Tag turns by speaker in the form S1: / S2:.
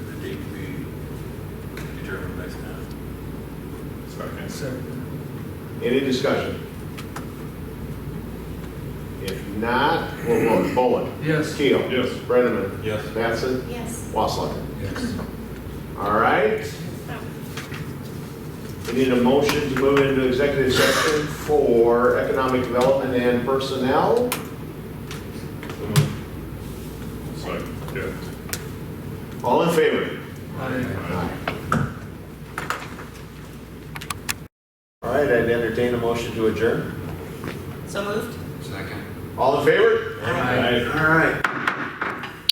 S1: Okay.
S2: Second.
S3: Any discussion? If not, we'll vote. Bowen.
S2: Yes.
S3: Keel.
S1: Yes.
S3: Brenneman.
S1: Yes.
S3: Mattson.
S4: Yes.
S3: Wasslerger.
S2: Yes.
S3: All right. We need a motion to move into executive session for economic development and personnel.
S1: So moved. Second. Yeah.
S3: All in favor?
S2: Aye.
S3: All right, I'd entertain a motion to adjourn.
S4: So moved?
S5: Second.
S3: All in favor?
S4: Aye.
S3: All right.